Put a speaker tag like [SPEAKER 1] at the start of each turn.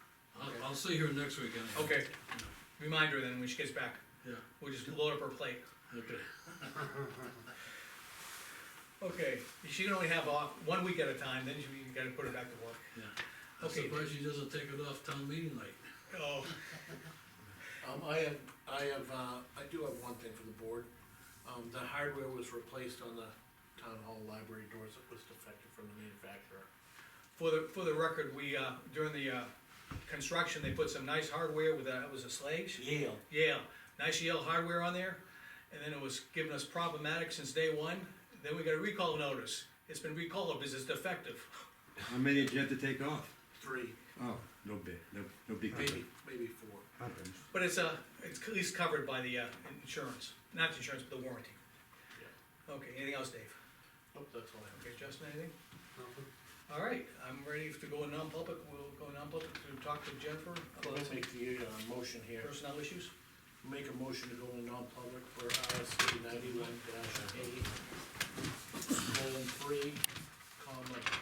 [SPEAKER 1] I'll see her next weekend.
[SPEAKER 2] Okay, reminder then, when she gets back,
[SPEAKER 1] Yeah,
[SPEAKER 2] we'll just load up her plate.
[SPEAKER 1] okay.
[SPEAKER 2] Okay, she can only have off one week at a time, then you you gotta put her back to work.
[SPEAKER 1] Yeah. I'm
[SPEAKER 2] Okay.
[SPEAKER 1] surprised she doesn't take it off town meeting night.
[SPEAKER 2] Oh,
[SPEAKER 3] Um, I have, I have, uh, I do have one thing for the board. Um, the hardware was replaced on the town hall library doors that was defective from the manufacturer.
[SPEAKER 2] for the, for the record, we, uh, during the, uh, construction, they put some nice hardware with, that was a slage.
[SPEAKER 3] Yale.
[SPEAKER 2] Yeah, nice Yale hardware on there, and then it was giving us problematic since day one, then we got a recall notice. It's been recalled because it's defective.
[SPEAKER 4] How many did you have to take off?
[SPEAKER 3] Three,
[SPEAKER 4] Oh, no big, no, no big deal.
[SPEAKER 3] maybe, maybe four.
[SPEAKER 4] Happens.
[SPEAKER 2] But it's, uh, it's at least covered by the, uh, insurance, not the insurance, but the warranty. Okay, anything else, Dave?
[SPEAKER 3] Nope, Oh, that's all I
[SPEAKER 2] Okay, Justin, anything?
[SPEAKER 3] have.
[SPEAKER 2] All right, I'm ready to go in non-public, we'll go non-public to talk to Jennifer
[SPEAKER 3] I'll
[SPEAKER 2] about some
[SPEAKER 3] make the, uh, motion here,
[SPEAKER 2] personnel issues.
[SPEAKER 3] make a motion to go in non-public